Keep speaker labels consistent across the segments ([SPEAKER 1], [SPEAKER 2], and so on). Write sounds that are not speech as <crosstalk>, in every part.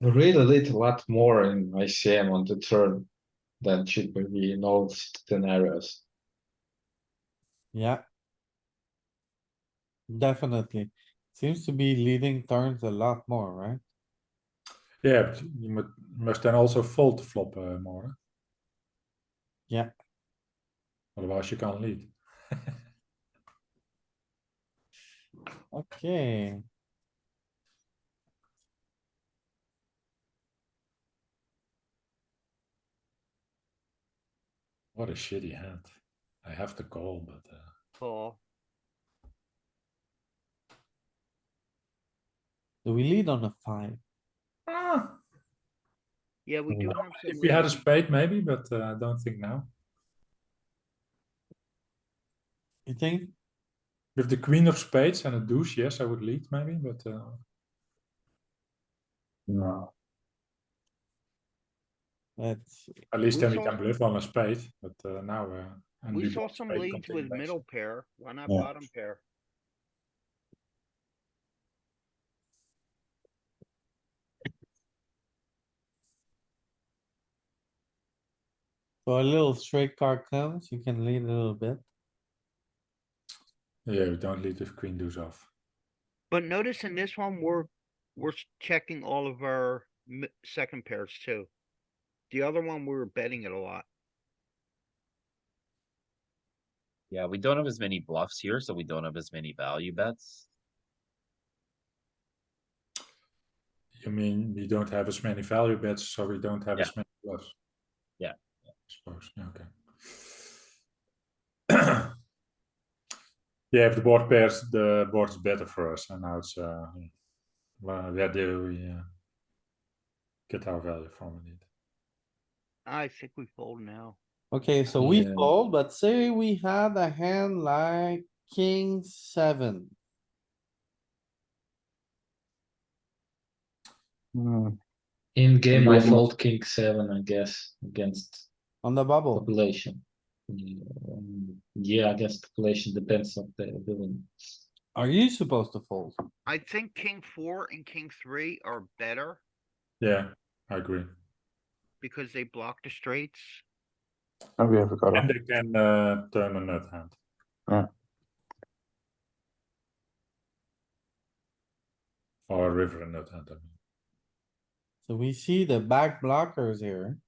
[SPEAKER 1] really lit a lot more in ICM on the turn than should be in all scenarios.
[SPEAKER 2] Yeah. Definitely. Seems to be leading turns a lot more, right?
[SPEAKER 3] Yeah, but you mu- must then also fold the flop uh, more.
[SPEAKER 2] Yeah.
[SPEAKER 3] Otherwise, you can't lead.
[SPEAKER 2] Okay.
[SPEAKER 3] What a shitty hand. I have to call, but uh,
[SPEAKER 4] Four.
[SPEAKER 2] Do we lead on a five?
[SPEAKER 3] ah,
[SPEAKER 4] Yeah, we do. have
[SPEAKER 3] if
[SPEAKER 4] some
[SPEAKER 3] we had a
[SPEAKER 4] leads.
[SPEAKER 3] spade, maybe, but uh, I don't think now.
[SPEAKER 2] You think?
[SPEAKER 3] With the queen of spades and a deuce, yes, I would lead maybe, but uh, no.
[SPEAKER 2] Let's, see.
[SPEAKER 3] At least
[SPEAKER 4] We
[SPEAKER 3] then we
[SPEAKER 4] saw-
[SPEAKER 3] can bluff on a spade. But uh, now uh, and
[SPEAKER 4] We
[SPEAKER 3] we
[SPEAKER 4] saw
[SPEAKER 3] block
[SPEAKER 4] some
[SPEAKER 3] spade
[SPEAKER 4] leads with
[SPEAKER 3] completely.
[SPEAKER 4] middle pair, why not
[SPEAKER 3] Yeah.
[SPEAKER 4] bottom pair?
[SPEAKER 2] so a little straight card comes, you can lead a little bit.
[SPEAKER 3] Yeah, we don't lead with queen deuce off.
[SPEAKER 4] But notice in this one, we're, we're s- checking all of our mi- second pairs too. The other one, we were betting it a lot.
[SPEAKER 5] Yeah, we don't have as many bluffs here, so we don't have as many value bets.
[SPEAKER 3] You mean we don't have as many value bets, so we don't have
[SPEAKER 5] Yeah.
[SPEAKER 3] as many bluffs?
[SPEAKER 5] Yeah.
[SPEAKER 3] I suppose, yeah, okay. <clears throat> Yeah, if the board pairs, the board is better for us, and now it's, uh, yeah. well, where do we, uh, get our value from indeed?
[SPEAKER 4] I think we fold now.
[SPEAKER 2] Okay, so we
[SPEAKER 1] Yeah.
[SPEAKER 2] fold, but say we had a hand like king seven.
[SPEAKER 1] In game, I
[SPEAKER 3] Yeah.
[SPEAKER 1] fold king seven, I guess, against
[SPEAKER 2] On the bubble,
[SPEAKER 1] population. Mm, Yeah, I guess population depends on the villain.
[SPEAKER 2] are you supposed to fold?
[SPEAKER 4] I think king four and king three are better
[SPEAKER 3] Yeah, I agree.
[SPEAKER 4] because they block the straights.
[SPEAKER 6] And we have a cutoff.
[SPEAKER 3] And they can, uh, turn a nut hand.
[SPEAKER 6] Yeah.
[SPEAKER 3] Or a river and nut hand, I mean.
[SPEAKER 2] So we see the back blockers here.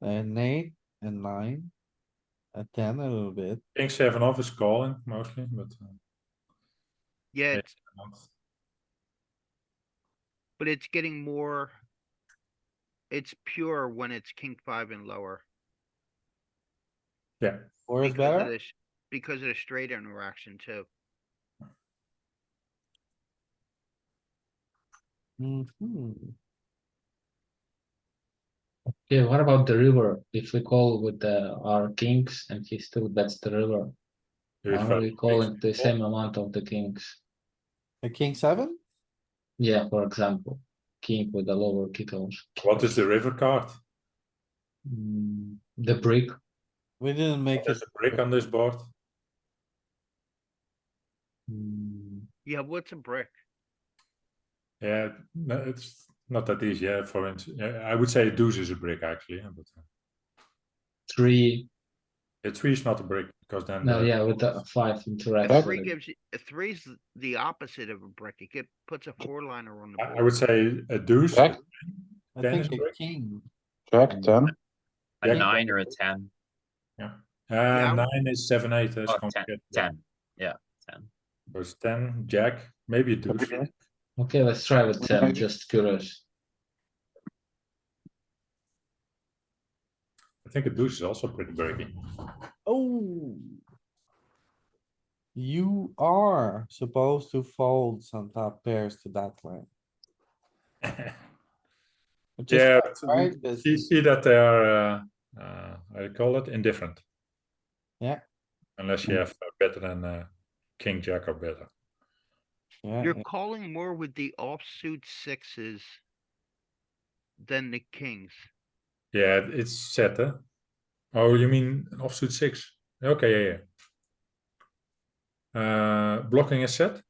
[SPEAKER 2] An eight and nine. A ten a little bit.
[SPEAKER 3] King seven off "Oh, is calling mostly, but uh,
[SPEAKER 4] Yeah,
[SPEAKER 3] Yeah.
[SPEAKER 4] it's-
[SPEAKER 3] not-
[SPEAKER 4] but it's getting more. It's pure when it's king five and lower.
[SPEAKER 3] yeah.
[SPEAKER 2] Or is
[SPEAKER 4] because of
[SPEAKER 2] better?
[SPEAKER 4] this- Because of the straight interaction too.
[SPEAKER 2] Mhm.
[SPEAKER 1] Yeah, what about the river? If we call with the, our kings and he still bets the river,
[SPEAKER 3] There is
[SPEAKER 1] are
[SPEAKER 3] value
[SPEAKER 1] we
[SPEAKER 3] in
[SPEAKER 1] calling
[SPEAKER 3] kings
[SPEAKER 1] the
[SPEAKER 3] and
[SPEAKER 1] same amount of the kings?
[SPEAKER 2] A king seven?
[SPEAKER 1] Yeah, for example, king with the lower kickoff.
[SPEAKER 3] calls. What is the river card?
[SPEAKER 1] Mm, the brick,
[SPEAKER 2] We didn't make it.
[SPEAKER 3] There's a brick on this board.
[SPEAKER 1] mm,
[SPEAKER 4] Yeah, what's a brick?
[SPEAKER 3] Yeah, no, it's not that easy. Yeah, for instance, I would say a deuce is a brick actually, yeah, but uh,
[SPEAKER 1] three,
[SPEAKER 3] a three is not a brick because then.
[SPEAKER 1] no,
[SPEAKER 3] the-
[SPEAKER 1] yeah, with the five
[SPEAKER 4] A
[SPEAKER 1] interaction.
[SPEAKER 4] three gives, you a three's th- the opposite of a brick. It get, puts a four liner on the
[SPEAKER 3] I I would
[SPEAKER 4] board.
[SPEAKER 3] say a deuce. Uh,
[SPEAKER 6] Jack,
[SPEAKER 2] I
[SPEAKER 3] Ten is
[SPEAKER 2] think a
[SPEAKER 3] great.
[SPEAKER 2] king.
[SPEAKER 6] Jack, ten.
[SPEAKER 5] A
[SPEAKER 3] Yeah.
[SPEAKER 5] nine or a ten,
[SPEAKER 3] Uh,
[SPEAKER 4] I would-
[SPEAKER 3] nine is seven, eight. uh, is
[SPEAKER 5] oh, ten,
[SPEAKER 3] complicated, yeah.
[SPEAKER 5] ten, yeah, ten.
[SPEAKER 3] So it's ten, jack, maybe a deuce.
[SPEAKER 1] Okay, let's try with ten,
[SPEAKER 6] Okay.
[SPEAKER 1] just curious.
[SPEAKER 3] I think a deuce is also pretty breaking. <laughs>
[SPEAKER 2] Oh. You are supposed to fold some top pairs to that line. which is
[SPEAKER 3] Yeah,
[SPEAKER 2] fine, Right, This-
[SPEAKER 3] You see that they are, uh, uh, how do you call it, indifferent.
[SPEAKER 2] Yeah.
[SPEAKER 3] Unless you have uh, better than uh, king jack or better.
[SPEAKER 2] yeah,
[SPEAKER 4] You're
[SPEAKER 2] yeah.
[SPEAKER 4] calling more with the offsuit sixes than the kings.
[SPEAKER 3] Yeah, it- it's set, huh? Oh, you mean an offsuit six? Okay, yeah, yeah. Uh, blocking is set.